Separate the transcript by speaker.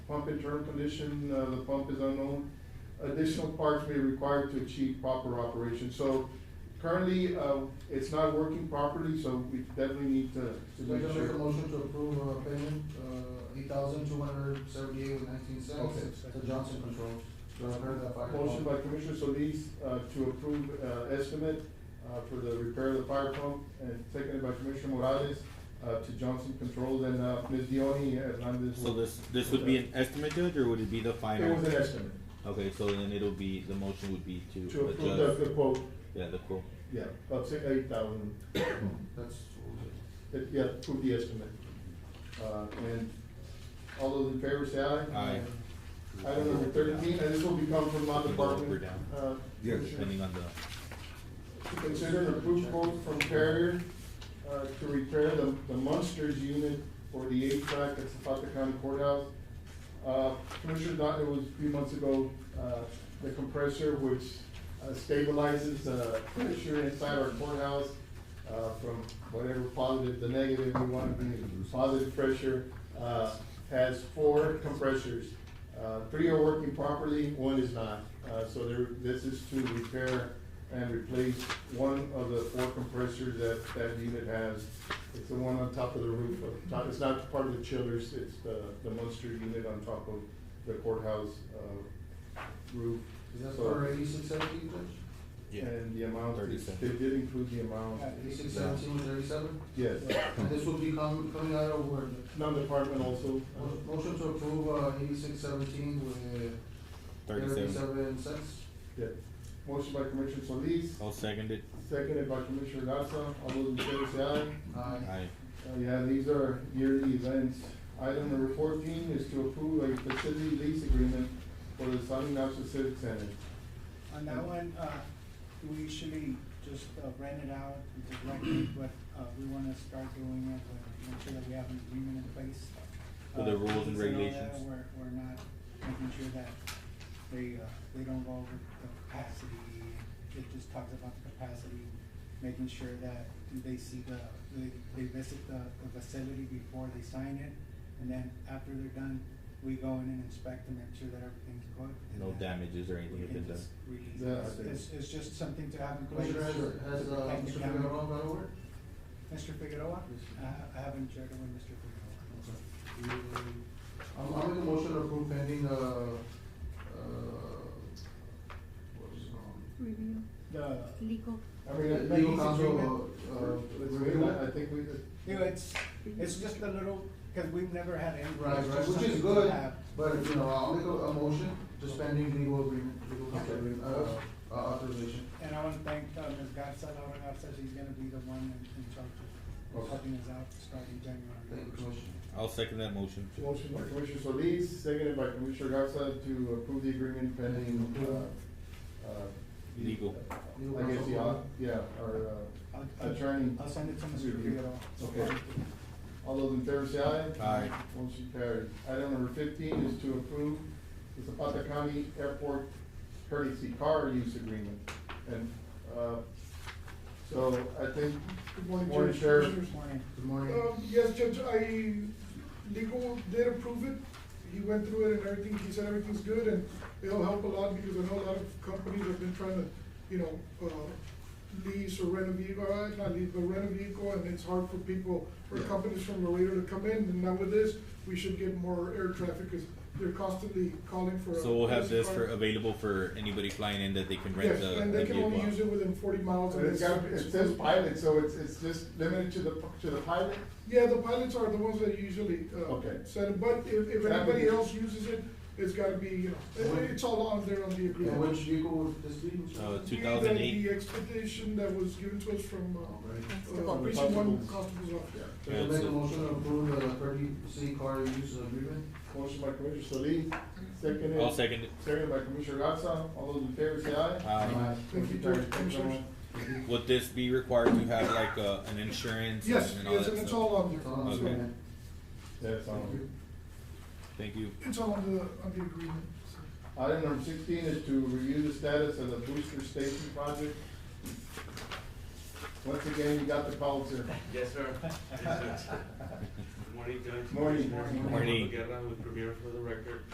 Speaker 1: pump and turn condition, uh, the pump is unknown. Additional parts may be required to achieve proper operation, so currently, uh, it's not working properly, so we definitely need to, to
Speaker 2: So
Speaker 1: make
Speaker 2: we're gonna make a
Speaker 1: sure.
Speaker 2: motion to approve uh, payment, uh, eight thousand two hundred seventy-eight with nineteen
Speaker 1: Okay.
Speaker 2: cents to Johnson Controls to repair that fire.
Speaker 1: Motion by
Speaker 2: alarm.
Speaker 1: Commissioner Solis, uh, to approve, uh, estimate, uh, for the repair of the fire pump, and seconded by Commissioner Morales, uh, to Johnson Controls, and, uh, Ms. Dione Hernandez.
Speaker 3: So
Speaker 1: will-
Speaker 3: this, this would be an estimate, Judge, or would it be the
Speaker 1: It
Speaker 3: final?
Speaker 1: was an estimate,
Speaker 3: Okay, so then it'll be, the motion would be to
Speaker 1: to approve the,
Speaker 3: adjust,
Speaker 1: the quote,
Speaker 3: yeah, the quote.
Speaker 1: yeah, of six, eight thousand,
Speaker 2: That's, what we did.
Speaker 1: it, yeah, approve the estimate. Uh, and all those in favor say aye.
Speaker 3: Aye.
Speaker 1: Item number thirteen, and this will become from my
Speaker 3: Up or
Speaker 1: department,
Speaker 3: down?
Speaker 1: uh,
Speaker 4: Yes.
Speaker 1: Commissioner.
Speaker 3: Depending on the,
Speaker 1: To consider an approved quote from Carrier, uh, to repair the, the Munsters unit for the HVAC at Zapata County Courthouse. Uh, Commissioner Dodd, it was a few months ago, uh, the compressor which uh, stabilizes, uh, pressure inside our courthouse, uh, from whatever positive to negative, we want to be positive pressure, uh, has four compressors. Uh, three are working properly, one is not. Uh, so there, this is to repair and replace one of the four compressors that that unit has. It's the one on top of the roof, of top- it's not part of the chillers, it's the, the Munster unit on top of the courthouse, uh, roof.
Speaker 2: is that
Speaker 1: So-
Speaker 2: for eighty-six seventeen, Judge?
Speaker 1: And the amount,
Speaker 3: Thirty
Speaker 1: is-
Speaker 3: cents.
Speaker 1: they did include the amount,
Speaker 2: Eighty-six seventeen with thirty-seven?
Speaker 1: yes.
Speaker 2: And this will be com- coming out of where?
Speaker 1: Non-department also, uh,
Speaker 2: Mo- Motion to approve, uh, eighty-six seventeen with
Speaker 3: thirty-seven.
Speaker 2: thirty-seven cents.
Speaker 1: yeah. Motion by Commissioner Solis,
Speaker 3: I'll second it.
Speaker 1: seconded by Commissioner Garza, all those in favor say aye.
Speaker 2: Aye.
Speaker 3: Aye.
Speaker 1: Uh, yeah, these are yearly events. Item number fourteen is to approve a facility lease agreement for the San Ignacio Civic Center.
Speaker 5: On that one, uh, we usually just uh, rent it out and just rent it, but, uh, we wanna start doing it, uh, make sure that we have an agreement in place.
Speaker 3: For the
Speaker 5: Uh,
Speaker 3: rules and
Speaker 5: all that,
Speaker 3: regulations.
Speaker 5: We're, we're not making sure that they, uh, they don't go over the capacity. It just talks about the capacity, making sure that they see the, they, they visit the, the facility before they sign it. And then after they're done, we go in and inspect and make sure that everything's good. and
Speaker 3: No
Speaker 5: that-
Speaker 3: damages or
Speaker 5: we
Speaker 3: anything have
Speaker 5: can
Speaker 3: been done.
Speaker 5: just release
Speaker 1: Yeah, I
Speaker 5: this.
Speaker 1: think-
Speaker 5: It's, it's just something to have in place.
Speaker 2: Commissioner, has, has,
Speaker 5: to
Speaker 2: uh,
Speaker 5: protect the
Speaker 2: Mr.
Speaker 5: county.
Speaker 2: Figueroa got a word?
Speaker 5: Mr. Figueroa? I, I haven't checked with Mr.
Speaker 2: Okay.
Speaker 5: Figueroa.
Speaker 2: I'm, I'm in a motion to approve pending, uh, uh, what is it called?
Speaker 6: Review,
Speaker 5: The,
Speaker 6: legal,
Speaker 1: I mean, I-
Speaker 2: Legal
Speaker 1: I-
Speaker 2: counsel, uh, uh,
Speaker 1: Let's
Speaker 2: review
Speaker 1: review it.
Speaker 2: it.
Speaker 1: I think we,
Speaker 5: you know, it's, it's just a little, cause we've never had any.
Speaker 2: Right,
Speaker 5: it's
Speaker 2: right,
Speaker 5: just
Speaker 2: which is
Speaker 5: something to
Speaker 2: good,
Speaker 5: have.
Speaker 2: but, you know, I'll make a, a motion, just pending legal agreement, legal counsel agreement, uh, uh, authorization.
Speaker 5: And I wanna thank, uh, Ms. Garza, Laura Garza, she's gonna be the one in, in charge of
Speaker 2: Okay.
Speaker 5: helping us out starting January.
Speaker 2: Thank you, Commissioner.
Speaker 3: I'll second that motion.
Speaker 1: motion by Commissioner Solis, seconded by Commissioner Garza to approve the agreement pending, uh, uh. the-
Speaker 3: Legal.
Speaker 2: Legal
Speaker 1: I guess,
Speaker 2: counsel.
Speaker 1: yeah, yeah, our,
Speaker 5: I'll-
Speaker 1: uh,
Speaker 5: I'll-
Speaker 1: attorney.
Speaker 5: I'll send it to Mr.
Speaker 1: Review.
Speaker 5: Figueroa.
Speaker 1: Okay. All those in favor say aye.
Speaker 3: Aye.
Speaker 1: Motion carries. Item number fifteen is to approve the Zapata County Airport courtesy car use agreement. And, uh, so I think,
Speaker 7: Good
Speaker 1: Morning,
Speaker 7: morning,
Speaker 1: Sheriff.
Speaker 7: Judge. Commissioners.
Speaker 5: Morning.
Speaker 2: Good morning.
Speaker 7: Um, yes, Judge, I, legal did approve it. He went through it and everything, he said everything's good, and it'll help a lot, because I know a lot of companies have been trying to, you know, uh, lease or rent a vehicle, uh, not lease, but rent a vehicle, and it's hard for people, or
Speaker 1: Yeah.
Speaker 7: companies from Laredo to come in, and now with this, we should get more air traffic, because they're constantly calling for. a
Speaker 3: So we'll have
Speaker 7: taxi
Speaker 3: this
Speaker 7: car.
Speaker 3: for, available for anybody flying in that they can rent
Speaker 7: Yes,
Speaker 3: the,
Speaker 7: and
Speaker 3: the
Speaker 7: they can only use
Speaker 3: vehicle.
Speaker 7: it within forty miles.
Speaker 1: so
Speaker 7: and
Speaker 1: it's
Speaker 7: it's-
Speaker 1: got, it says pilot, so it's, it's just limited to the, to the pilot?
Speaker 7: Yeah, the pilots are the ones that usually, uh,
Speaker 1: Okay.
Speaker 7: set it, but if, if
Speaker 1: That would
Speaker 7: anybody
Speaker 1: be-
Speaker 7: else uses it, it's gotta be, you know, it- it's all on there on the
Speaker 2: And which
Speaker 7: agreement.
Speaker 2: vehicle would this be?
Speaker 3: Uh,
Speaker 7: The-
Speaker 3: two thousand
Speaker 7: The
Speaker 3: eight,
Speaker 7: expedition that was given to us from, uh,
Speaker 2: Alright.
Speaker 7: uh,
Speaker 1: Constable.
Speaker 7: precinct one constable's office.
Speaker 1: Yeah.
Speaker 2: So make a motion to approve the thirty city car use agreement.
Speaker 1: Motion by Commissioner Solis,
Speaker 3: I'll
Speaker 1: seconded,
Speaker 3: second it.
Speaker 1: seconded by Commissioner Garza. All those in favor say aye.
Speaker 3: Aye.
Speaker 7: Thank you,
Speaker 1: Motion carries.
Speaker 7: Judge. Commissioners.
Speaker 3: Um, Would this be required to have like, uh, an insurance?
Speaker 7: Yes,
Speaker 3: and all
Speaker 7: yes,
Speaker 3: that
Speaker 7: and it's
Speaker 3: stuff?
Speaker 7: all on
Speaker 2: It's all
Speaker 7: there,
Speaker 2: on
Speaker 3: Okay.
Speaker 2: agreement.
Speaker 1: That's all.
Speaker 2: Thank you.
Speaker 3: Thank you.
Speaker 7: it's all on the, on the agreement. so.
Speaker 1: Item number sixteen is to review the status of the booster station project. Once again, you got the call, sir.
Speaker 8: Yes, sir.
Speaker 4: Good morning, Judge.
Speaker 1: Morning.
Speaker 4: Commissioners.
Speaker 1: Morning.
Speaker 4: Marco Guerra with Premier for the record.